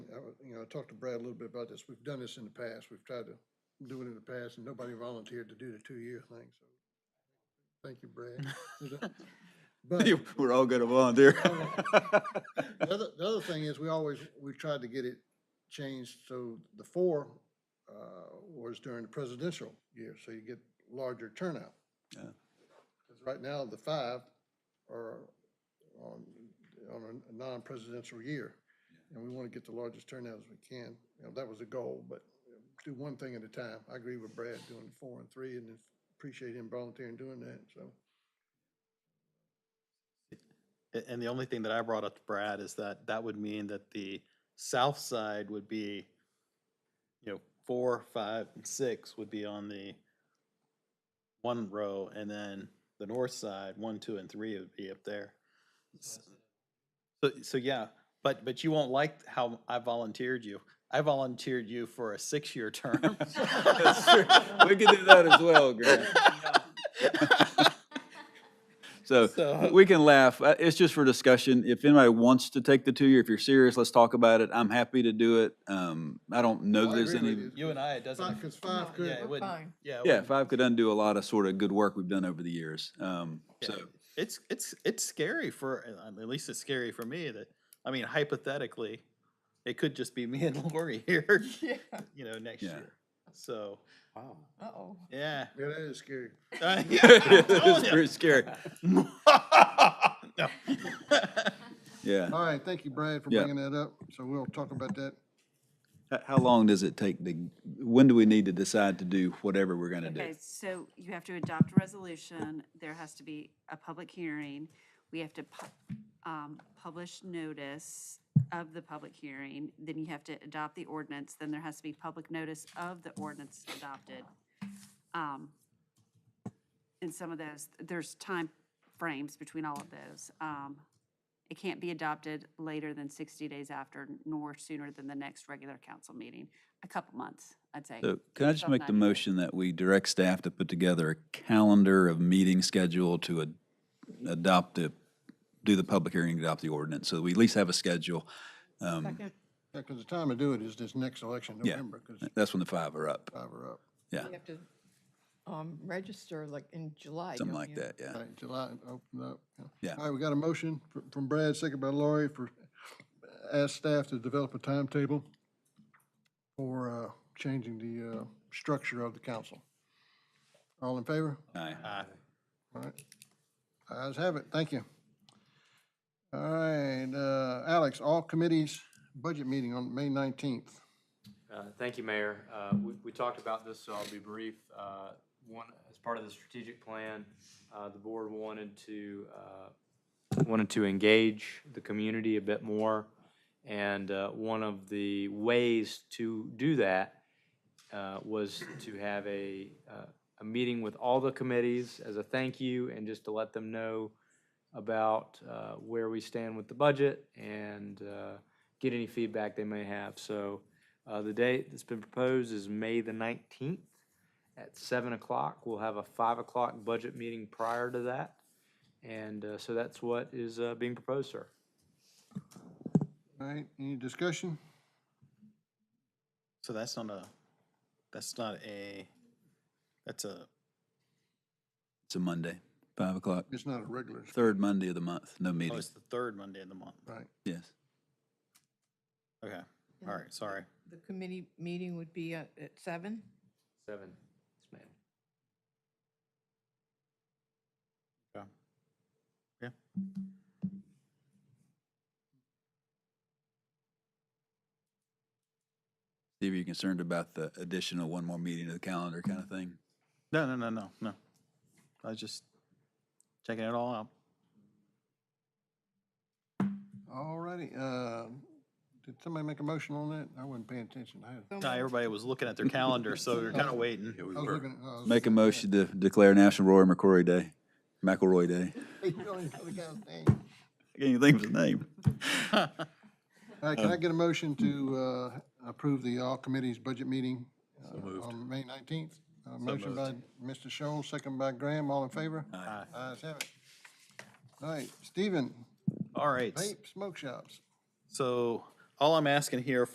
was- you know, I talked to Brad a little bit about this. We've done this in the past. We've tried to do it in the past and nobody volunteered to do the two-year thing, so. Thank you, Brad. But We're all gonna volunteer. the other, the other thing is, we always, we tried to get it changed, so the four, uh, was during the presidential year, so you get larger turnout. Yeah. 'Cause Right now, the five are on, on a non-presidential year, and we wanna get the largest turnout as we can. You know, that was the goal, but do one thing at a time. I agree with Brad doing four and three, and appreciate him volunteering doing that, so. A- And the only thing that I brought up to Brad is that that would mean that the south side would be, you know, four, five, and six would be on the one row, and then the north side, one, two, and three would be up there. S- So, so yeah, but, but you won't like how I volunteered you. I volunteered you for a six-year term. Oh, We could do that as well, Grant. So, So- we can laugh. Uh, It's just for discussion. If anybody wants to take the two-year, if you're serious, let's talk about it. I'm happy to do it. Um, I don't know I that there's agree with any. you. You and I, it doesn't. Five, cause five Yeah, could, it wouldn't. fine. Yeah. it Yeah, wouldn't- five could undo a lot of sort of good work we've done over the years. Um, Yeah, so, it's it's it's scary for uh, at least it's scary for me that I mean hypothetically, it could just be me and Lori here, Yeah. you know, next Yeah. year. So Wow. Uh-oh. yeah, yeah, that is scary. I- I told it's ya. pretty scary. no. Yeah. All right, thank you, Brad, for Yeah. bringing that up. So we'll talk about that. H- How long does it take to, when do we need to decide to do whatever we're gonna do? Okay, so you have to adopt a resolution, there has to be a public hearing, we have to pu- um, publish notice of the public hearing, then you have to adopt the ordinance, then there has to be public notice of the ordinance adopted. Um, And some of those, there's time frames between all of those. Um, It can't be adopted later than 60 days after, nor sooner than the next regular council meeting, a couple months, I'd say. So can I just 12, make the 90 days. motion that we direct staff to put together a calendar of meeting schedule to ad- adopt the, do the public hearing, adopt the ordinance, so we at least have a schedule. Um, Yeah, because the time to do it is this next election, Yeah. November, because That's when the five are up, five are up. yeah, You have to um, register like in July, something don't like you? that, yeah. Right, July, open up. Yeah. All right, we got a motion fr- from Brad, second by Laurie, for, ask staff to develop a timetable for uh, changing the uh, structure of the council. All in favor? Aye. All right. Eyes have it, thank you. All right, uh, Alex, all committees, budget meeting on May 19th. Uh, Thank you, Mayor. Uh, We we talked about this, so I'll be brief. Uh, One, as part of the strategic plan, uh, the board wanted to, uh, wanted to engage the community a bit more. And uh, one of the ways to do that uh, was to have a, uh, a meeting with all the committees as a thank you and just to let them know about uh, where we stand with the budget and uh, get any feedback they may have. So uh, the date that's been proposed is May the nineteenth at seven o'clock. We'll have a five o'clock budget meeting prior to that. And uh, so that's what is uh, being proposed, sir. All right, any discussion? So that's not a that's not a that's a It's a Monday, five o'clock, It's not a regular, third Monday of the month, no oh, meeting, it's the third Monday of the month. right? yes. Okay. And All the- right, sorry. The committee meeting would be at at seven? Seven. Yes, ma'am. Steve, are you concerned about the additional one more meeting to the calendar kind of thing? No, no, no, no, no. I was just checking it all out. All righty, uh, did somebody make a motion on that? I wasn't paying attention. I had- Nah, So moved. everybody was looking at their calendar, so they're kind of waiting. I was looking. at- I was Make a looking at- motion to declare National Roy McCrory Day, McElroy Day. You don't even know the guy's name. I can't even think of his name. All right, can I get a motion to uh, approve the all committees budget meeting uh, on May 19th? Uh, Motion by Mr. Shoal, second by Graham, all in favor? Aye. Ayes have it. All right, Stephen, All right. vape smoke shops. So all I'm asking here